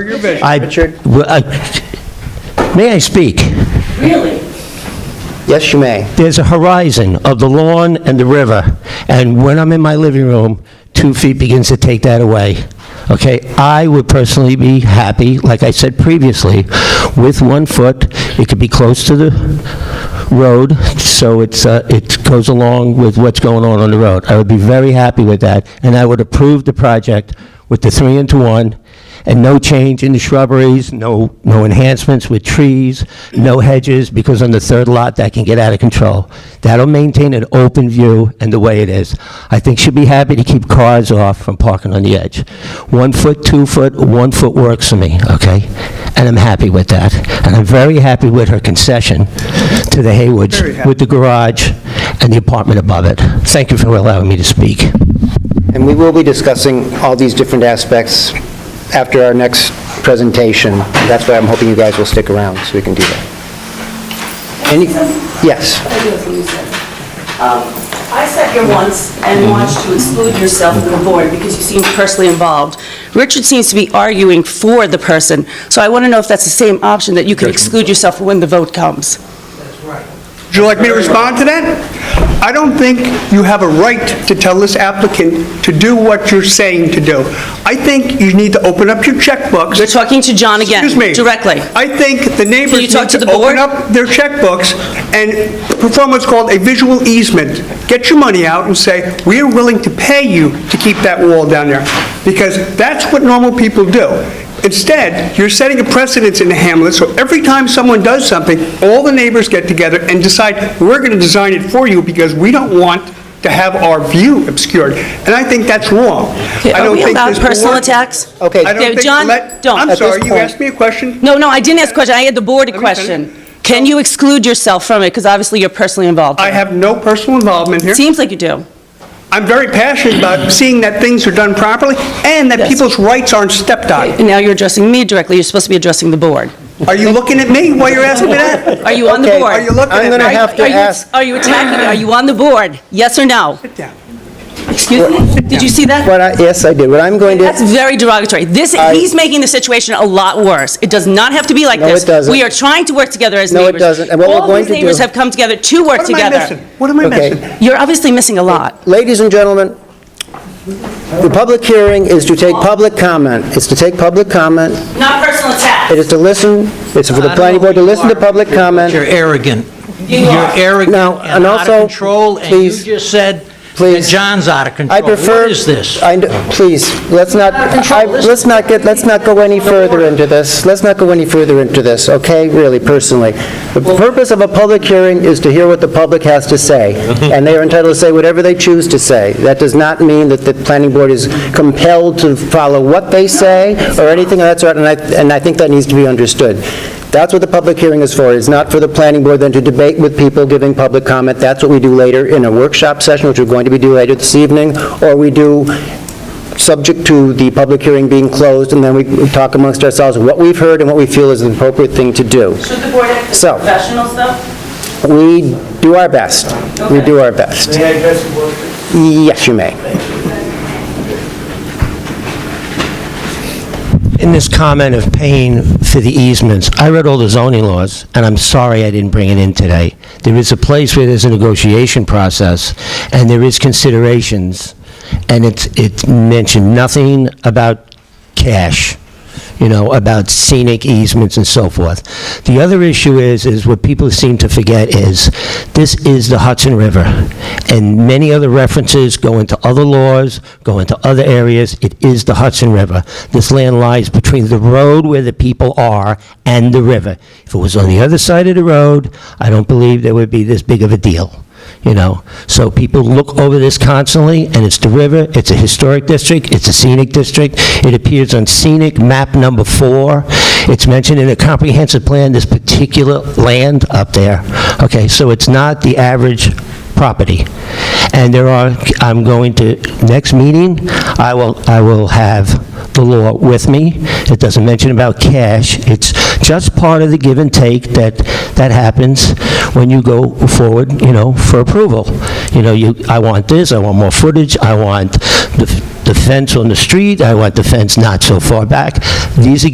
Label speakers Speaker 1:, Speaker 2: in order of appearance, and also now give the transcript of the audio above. Speaker 1: vision.
Speaker 2: I-
Speaker 3: Richard?
Speaker 2: Well, I- May I speak?
Speaker 3: Really? Yes, you may.
Speaker 2: There's a horizon of the lawn and the river, and when I'm in my living room, two feet begins to take that away. Okay? I would personally be happy, like I said previously, with one foot. It could be close to the road, so it's, uh, it goes along with what's going on on the road. I would be very happy with that, and I would approve the project with the three into one, and no change in the shrubberies, no, no enhancements with trees, no hedges, because on the third lot, that can get out of control. That'll maintain an open view and the way it is. I think she'd be happy to keep cars off from parking on the edge. One foot, two foot, one foot works for me, okay? And I'm happy with that. And I'm very happy with her concession to the
Speaker 1: Very
Speaker 2: Haywoods
Speaker 1: happy.
Speaker 2: with the garage and the apartment above it. Thank you for allowing me to speak.
Speaker 3: And we will be discussing all these different aspects after our next presentation. That's why I'm hoping you guys will stick around, so we can do that. Any, yes,
Speaker 4: I do have something to say. Um, I sat here once and
Speaker 1: Mm-hmm.
Speaker 4: watched you exclude yourself from the board because you seemed personally involved. Richard seems to be arguing for the person, so I want to know if that's the same option, that you can exclude yourself when the vote comes.
Speaker 1: Would you like me to respond to that? I don't think you have a right to tell this applicant to do what you're saying to do. I think you need to open up your checkbooks.
Speaker 4: You're talking to John again,
Speaker 1: Excuse me.
Speaker 4: directly.
Speaker 1: I think the neighbors
Speaker 4: Can you talk
Speaker 1: need
Speaker 4: to
Speaker 1: to
Speaker 4: the
Speaker 1: open
Speaker 4: board?
Speaker 1: up their checkbooks and perform what's called a visual easement. Get your money out and say, "We're willing to pay you to keep that wall down there," because that's what normal people do. Instead, you're setting a precedence in the hamlet, so every time someone does something, all the neighbors get together and decide, "We're going to design it for you because we don't want to have our view obscured." And I think that's wrong. I
Speaker 4: Are
Speaker 1: don't
Speaker 4: we
Speaker 1: think
Speaker 4: allowed
Speaker 1: this
Speaker 4: personal
Speaker 1: board-
Speaker 4: attacks?
Speaker 3: Okay.
Speaker 1: I don't
Speaker 4: Yeah,
Speaker 1: think-
Speaker 4: John,
Speaker 1: let-
Speaker 4: don't.
Speaker 1: I'm
Speaker 4: At this
Speaker 1: sorry, you
Speaker 3: point-
Speaker 1: asked me a question?
Speaker 4: No, no, I didn't ask a question, I had the board a
Speaker 1: Let me
Speaker 4: question.
Speaker 1: finish.
Speaker 4: Can you exclude yourself from it, because obviously you're personally involved?
Speaker 1: I have no personal involvement here.
Speaker 4: Seems like you do.
Speaker 1: I'm very passionate about seeing that things are done properly and that
Speaker 4: Yes.
Speaker 1: people's rights aren't stepped on.
Speaker 4: And now you're addressing me directly, you're supposed to be addressing the board.
Speaker 1: Are you looking at me while you're asking me that?
Speaker 4: Are you on the
Speaker 3: Okay,
Speaker 4: board?
Speaker 1: Are you looking
Speaker 3: I'm
Speaker 1: at
Speaker 3: gonna
Speaker 1: me?
Speaker 3: have to
Speaker 4: Are you-
Speaker 3: ask-
Speaker 4: Are you attacking, are you on the board? Yes or no?
Speaker 1: Sit down.
Speaker 4: Excuse me? Did you see that?
Speaker 3: what I, yes, I did. What I'm going to...
Speaker 4: That's very derogatory. This, he's making the situation a lot worse. It does not have to be like
Speaker 3: No, it
Speaker 4: this.
Speaker 3: doesn't.
Speaker 4: We are trying to work together as
Speaker 3: No, it
Speaker 4: neighbors.
Speaker 3: doesn't. And what we're
Speaker 4: All
Speaker 3: going
Speaker 4: these
Speaker 3: to do-
Speaker 4: neighbors have come together to work
Speaker 1: What am I
Speaker 4: together.
Speaker 1: missing? What am I
Speaker 3: Okay.
Speaker 1: missing?
Speaker 4: You're obviously missing a lot.
Speaker 3: Ladies and gentlemen, the public hearing is to take public comment. It's to take public comment.
Speaker 4: Not personal attack.
Speaker 3: It is to listen, it's for the planning board to listen to public comment.
Speaker 5: You're arrogant.
Speaker 4: You are.
Speaker 5: You're arrogant
Speaker 3: Now,
Speaker 5: and
Speaker 3: and
Speaker 5: out
Speaker 3: also,
Speaker 5: of control, and you
Speaker 3: please,
Speaker 5: just said that
Speaker 3: please.
Speaker 5: John's out of control.
Speaker 3: I prefer...
Speaker 5: What is this?
Speaker 3: I kn- Please, let's not, I- let's not get, let's not go any further into this. Let's not go any further into this, okay? Really, personally. The purpose of a public hearing is to hear what the public has to say, and they are entitled to say whatever they choose to say. That does not mean that the planning board is compelled to follow what they say or anything of that sort, and I, and I think that needs to be understood. That's what the public hearing is for. It's not for the planning board then to debate with people giving public comment. That's what we do later in a workshop session, which we're going to be doing later this evening, or we do subject to the public hearing being closed, and then we talk amongst ourselves what we've heard and what we feel is the appropriate thing to do.
Speaker 4: Should the board act
Speaker 3: So-
Speaker 4: professional stuff?
Speaker 3: We do our best. We do our best. Yes, you may.
Speaker 2: In this comment of paying for the easements, I read all the zoning laws, and I'm sorry I didn't bring it in today. There is a place where there's a negotiation process, and there is considerations, and it's, it mentioned nothing about cash, you know, about scenic easements and so forth. The other issue is, is what people seem to forget is, this is the Hudson River, and many other references go into other laws, go into other areas, it is the Hudson River. This land lies between the road where the people are and the river. If it was on the other side of the road, I don't believe there would be this big of a deal you know? So people look over this constantly, and it's the river, it's a historic district, it's a scenic district, it appears on scenic map number four, it's mentioned in a comprehensive plan, this particular land up there, okay? So it's not the average property. And there are, I'm going to, next meeting, I will, I will have the law with me. It doesn't mention about cash. It's just part of the give and take that, that happens when you go forward, you know, for approval. You know, you, I want this, I want more footage, I want the the fence on the street, I want the fence not so far back. These are